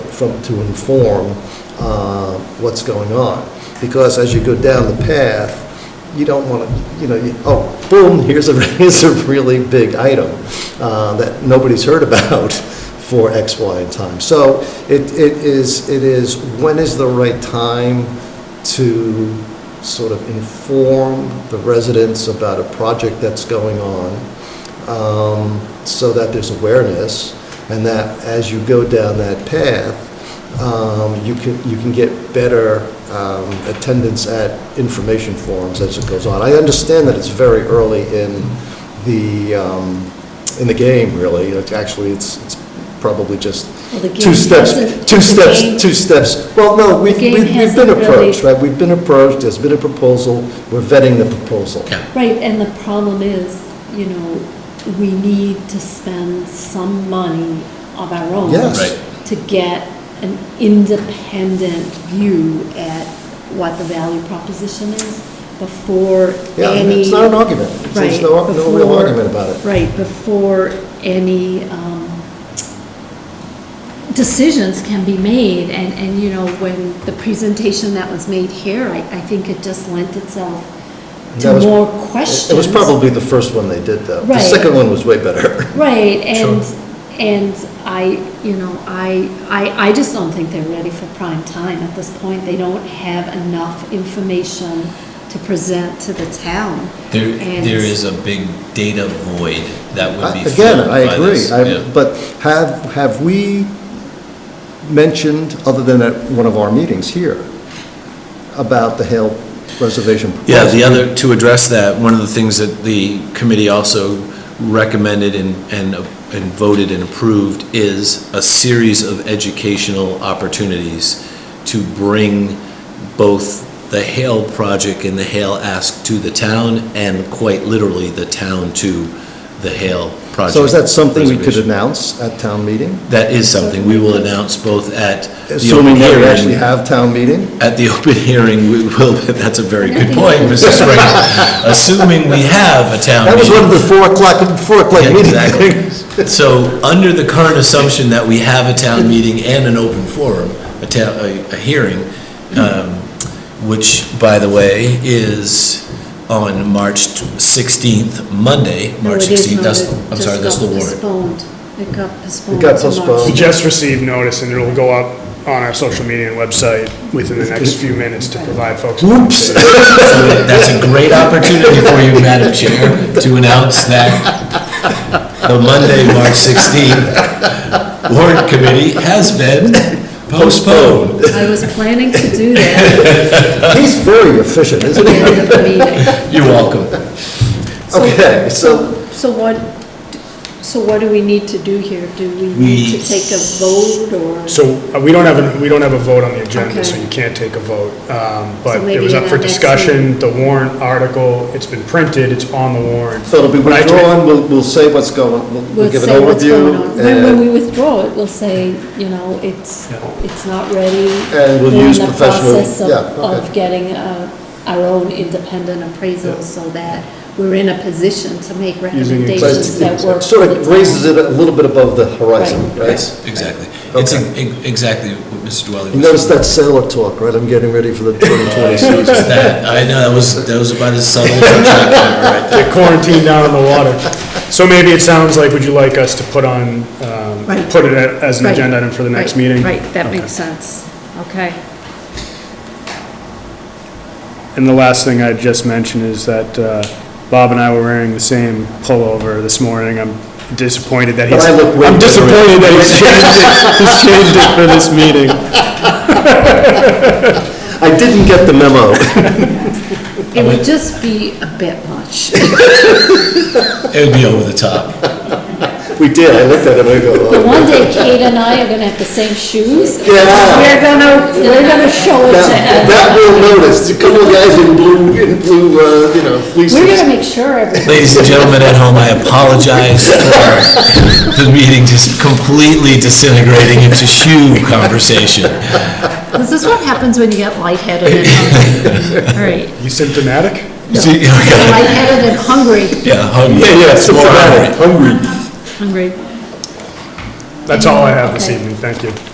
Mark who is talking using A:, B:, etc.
A: from, to inform uh, what's going on. Because as you go down the path, you don't want to, you know, you- oh, boom, here's a, here's a really big item uh, that nobody's heard about for X, Y, and time. So it, it is, it is, when is the right time to sort of inform the residents about a project that's going on? um, so that there's awareness, and that as you go down that path, um, you can, you can get better um, attendance at information forums as it goes on. I understand that it's very early in the, um, in the game, really. It's Actually, it's, it's probably just
B: Well, the game
A: two steps,
B: hasn't-
A: two
B: the
A: steps,
B: game-
A: two steps. Well, no, we've,
B: game
A: we've we've been
B: hasn't really-
A: approached, right? We've been approached, there's been a proposal, we're vetting the proposal.
B: Right, and the problem is, you know, we need to spend some money of our own
A: Yes.
C: Right.
B: to get an independent view at what the value proposition is before
A: Yeah,
B: any.
A: it's not an argument. There's
B: Right,
A: no, no real
B: before-
A: argument about it.
B: Right, before any um, decisions can be made, and, and, you know, when the presentation that was made here, I, I think it just lent itself
A: That
B: to
A: was-
B: more
A: It
B: questions.
A: was probably the first one they did, though. The
B: Right.
A: second one was way better.
B: Right, and, and I, you know, I, I, I just don't think they're ready for prime time at this point. They don't have enough information to present to the town.
C: There,
B: And-
C: there is a big data void that would be
A: Again,
C: filled
A: I
C: by
A: agree,
C: this,
A: I-
C: yeah.
A: but have, have we mentioned, other than at one of our meetings here, about the Hale Reservation?
C: Yeah,
A: proposal?
C: the other, to address that, one of the things that the committee also recommended and, and and voted and approved is a series of educational opportunities to bring both the Hale project and the Hale Ask to the town, and quite literally, the town to the Hale project.
A: So is that something we could
C: reservation.
A: announce at town meeting?
C: That is something we will announce both at the
A: Assuming
C: open
A: that we
C: hearing.
A: actually have town meeting?
C: At the open hearing, we will, that's a very good point, Mr. Springer. Assuming we have a town
A: That was one
C: meeting.
A: of the four o'clock, four o'clock
C: Yeah,
A: meeting
C: exactly.
A: things.
C: So, under the current assumption that we have a town meeting and an open forum, a town, a, a hearing, um, which, by the way, is on March sixteenth, Monday,
B: No,
C: March
B: it is not.
C: sixteenth, that's,
B: It
C: I'm
B: just
C: sorry, that's the
B: got
C: warrant.
B: postponed. It got postponed.
A: got
B: to March.
A: postponed.
D: We just received notice, and it'll go up on our social media and website within the next few minutes to provide folks. Whoops.
C: So That's a great opportunity for you, Madam Chair, to announce that the Monday, March 16th warrant committee has been postponed.
B: I was planning to do that
A: He's very efficient,
B: at
A: isn't
B: the
A: he?
B: end of the meeting.
C: You're welcome.
A: Okay, so-
B: So what, so what do we need to do here? Do we need
C: We-
B: to take a vote or?
D: So uh, we don't have, a- we don't have a vote on the agenda, so
B: Okay.
D: you can't take a vote. Um, But it
B: maybe
D: was
B: in
D: up for
B: our next
D: discussion, the warrant article, it's been printed, it's on the warrant.
A: So it'll be
D: When I took-
A: withdrawn, we'll, we'll say what's going, we'll-
B: We'll
A: we'll give an
B: say what's going
A: overview,
B: on. When, when we
A: and,
B: withdraw it, we'll say, you know, it's,
D: Yeah.
B: it's not ready.
A: And we'll
B: We're in
A: use
B: the
A: professional-
B: process of-
A: yeah, okay.
B: Of getting uh, our own independent appraisal so that we're in a position to make recommendations
A: but
B: that
A: it
B: work.
A: sort
B: for the
A: of
B: town.
A: raises it a little bit above the horizon, right?
C: Yes, exactly. It's e- exactly what Mr. Dwelly
A: You
C: was.
A: notice that sailor talk, right? I'm getting ready for the 2020 season.
C: That- I know, that was, that was about as subtle as I tried to remember right there.
D: They're quarantined down in the water. So maybe it sounds like, would you like us to put on, um,
B: Right.
D: put it a- as an
B: Right,
D: agenda item for the next
B: right,
D: meeting?
B: Right, that
D: Okay.
B: makes sense. Okay.
D: And the last thing I'd just mention is that uh, Bob and I were wearing the same pullover this morning. I'm disappointed that
A: But
D: he's.
A: I look way
D: I'm
A: different.
D: disappointed that he's changed it, he's changed it for this meeting.
A: I didn't get the memo.
B: It would just be a bit much.
C: It would be over the top.
A: We did, I looked at it, I go,
B: But
A: oh.
B: one day Kate and I are gonna have the same shoes.
A: Yeah.
B: We're gonna, we're gonna show it to
A: That
B: everyone.
A: that we'll notice, a couple of guys in blue, in blue, uh, you know,
B: We're
A: fleeces.
B: gonna make sure everyone.
C: Ladies and gentlemen at home, I apologize for the meeting just completely disintegrating into shoe conversation.
B: This is what happens when you get lightheaded and hungry. All right.
D: You symptomatic?
C: See, okay.
B: Lightheaded and hungry,
C: Yeah, hungry.
A: Yeah, yeah,
C: More hungry.
A: symptomatic, hungry.
B: hungry.
D: That's all I have this
B: Okay.
D: evening, thank you.